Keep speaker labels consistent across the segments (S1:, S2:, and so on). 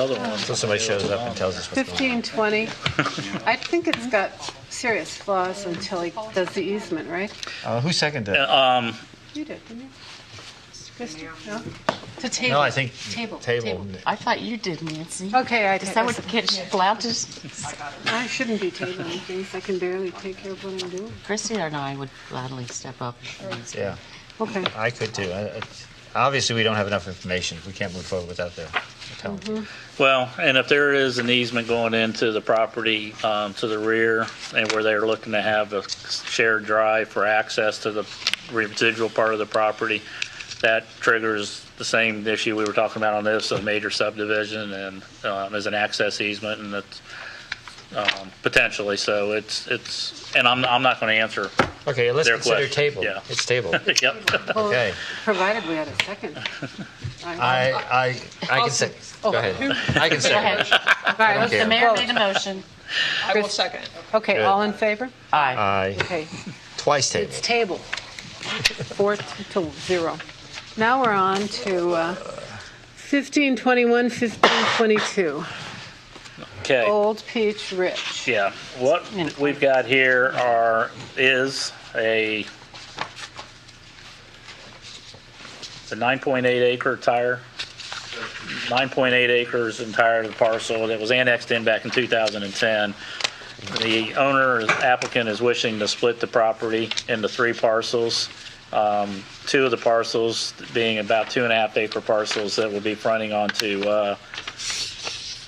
S1: Other one.
S2: So somebody shows up and tells us what's going on.
S3: 15, 20. I think it's got serious flaws until he does the easement, right?
S2: Uh, Who seconded it?
S1: Um,
S3: You did, didn't you? Kristen? No?
S4: To table.
S2: No, I think
S4: Table.
S2: table.
S4: I thought you did, Nancy.
S3: Okay, I
S4: Is
S3: take
S4: that what the
S3: this.
S4: kids flouted?
S3: I shouldn't be tabling things. I can barely take care of what I'm doing.
S4: Chrissy and I would gladly step up.
S2: Yeah,
S3: Okay.
S2: I could too. I- I- Obviously, we don't have enough information. We can't move forward without the the telling.
S1: well, and if there is an easement going into the property, um, to the rear and where they're looking to have a shared drive for access to the residual part of the property, that triggers the same issue we were talking about on this, a major subdivision and, um, as an access easement and it's, um, potentially, so it's, it's, and I'm, I'm not going to answer.
S2: Okay, let's
S1: Their
S2: consider
S1: question,
S2: table.
S1: yeah.
S2: It's table.
S1: Yep.
S3: Well,
S2: Okay.
S3: Provided we had a second. I-
S2: I, I, I can say, go ahead. I can
S4: Go
S2: say,
S4: ahead.
S3: All
S2: don't
S3: right, let's
S2: care.
S4: The mayor made a motion.
S5: I will second.
S3: vote. Okay,
S2: Good.
S3: all in favor?
S4: Aye.
S2: I,
S3: Okay,
S2: twice table.
S3: it's table. Four to zero. Now we're on to uh, 15, 21, 15, 22.
S1: Okay.
S3: Old Peach Ridge.
S1: Yeah, what we've got here are, is a, the 9.8 acre tire, 9.8 acres entire of the parcel that was annexed in back in 2010. The owner, applicant is wishing to split the property into three parcels. Um, Two of the parcels being about two and a half acre parcels that will be fronting onto uh,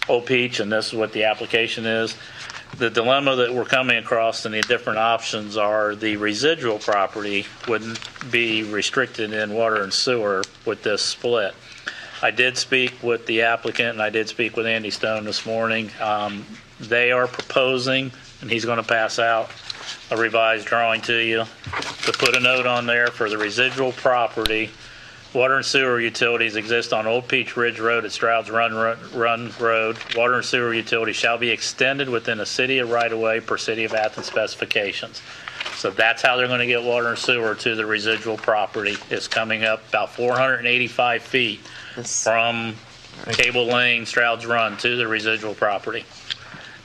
S1: Old Peach, and this is what the application is the dilemma that we're coming across and the different options are the residual property wouldn't be restricted in water and sewer with this split. I did speak with the applicant and I did speak with Andy Stone this morning. Um, they are proposing, and he's going to pass out a revised drawing to you to put a note on there for the residual property. Water and sewer utilities exist on Old Peach Ridge Road at Stroud's Run, Run- Run Road. Water and sewer utilities shall be extended within a city of right-of-way per city of Athens specifications. So that's how they're going to get water and sewer to the residual property. It's coming up about 485 feet
S4: This-
S1: from Cable Lane, Stroud's Run to the residual property.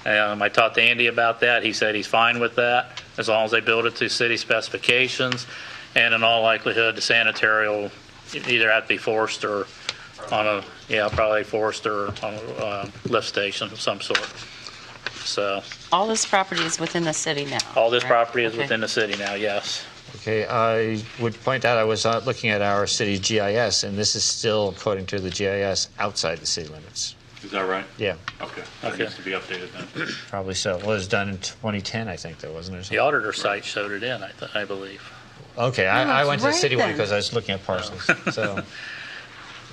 S1: Um, I talked to Andy about that. He said he's fine with that as long as they build it to city specifications. And in all likelihood, the sanitary will either have to be forced or on a, yeah, probably forced or on a uh, lift station of some sort. So
S4: All this property is within the city now.
S1: all this
S4: right?
S1: property is
S4: Okay.
S1: within the city now, yes.
S2: Okay, I would point out, I was uh, looking at our city GIS, and this is still, according to the GIS, outside the city limits.
S6: Is that right?
S2: Yeah,
S6: Okay. That
S1: Okay.
S6: needs to be updated then.
S2: probably so. Well, it was done in 2010, I think, though, wasn't it? or
S1: The
S2: something?
S1: auditor site showed it in, I th- I believe.
S2: Okay, I, I
S3: it's
S2: went to the
S3: right
S2: city one
S3: then.
S2: because I was looking at parcels, so,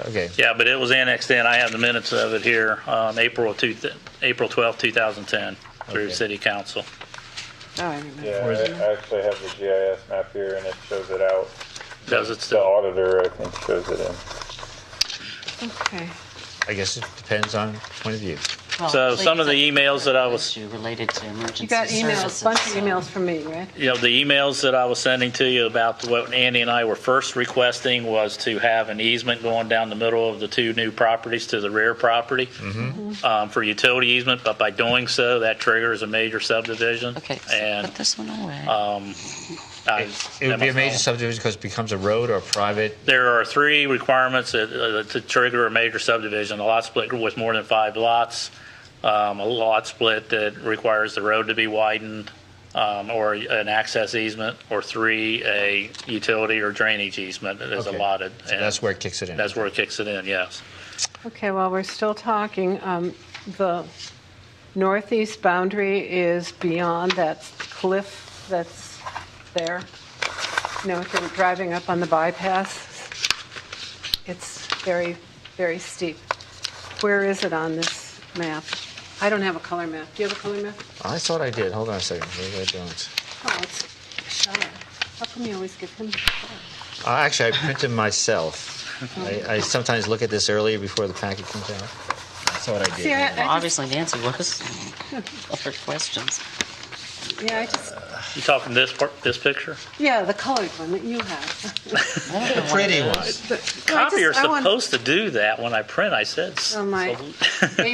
S2: okay.
S1: Yeah, but it was annexed in. I have the minutes of it here, um, April two, th- April twelfth, two 2010, through
S2: Okay.
S1: city council.
S3: Oh, I remember.
S7: Yeah, I I actually have the GIS map here and it shows it out.
S1: Does it
S7: The
S1: still?
S7: auditor, I think, shows it in.
S3: Okay.
S2: I guess it depends on point of view.
S4: Well,
S1: So
S4: Oh, please,
S1: some of the e-
S4: I-
S1: emails that I was,
S4: issue Related to
S3: You
S4: emergency
S3: got emails,
S4: services.
S3: bunch of emails from me, right?
S1: you know, the emails that I was sending to you about what Andy and I were first requesting was to have an easement going down the middle of the two new properties to the rear property
S2: Mm-hmm.
S4: Mm-hmm.
S1: um, for utility easement, but by doing so, that triggers a major subdivision.
S4: Okay, so
S1: And uh,
S4: put this one away.
S1: I.
S2: It would be a
S1: that must
S2: major
S1: all-
S2: subdivision because it becomes a road or a private,
S1: There are three requirements that, uh, to trigger a major subdivision, a lot split with more than five lots, um, a lot split that requires the road to be widened, um, or an access easement, or three, a utility or drainage easement that is
S2: Okay.
S1: allotted. And
S2: that's where it kicks it in.
S1: That's where it kicks it in, yes.
S3: Okay, while we're still talking, um, the northeast boundary is beyond that cliff that's there. You know, if you're driving up on the bypass, it's very, very steep. Where is it on this map? I don't have a color map. Do you have a color map?
S2: I thought I did, hold on a second, maybe I don't.
S3: Oh, it's Shire. How come you always give him? the color?
S2: Uh, Actually, I printed myself. I I sometimes look at this earlier before the packet comes out. That's what I
S3: See,
S2: did.
S3: I- I
S4: Obviously Nancy was. Other questions.
S3: Yeah, I just
S1: You talking this part, this picture?
S3: Yeah, the colored one that you have.
S2: Pretty one.
S3: I just-
S1: Copiers
S3: I want-
S1: supposed to do that when I print, I said. s-
S3: Oh, my.
S1: so-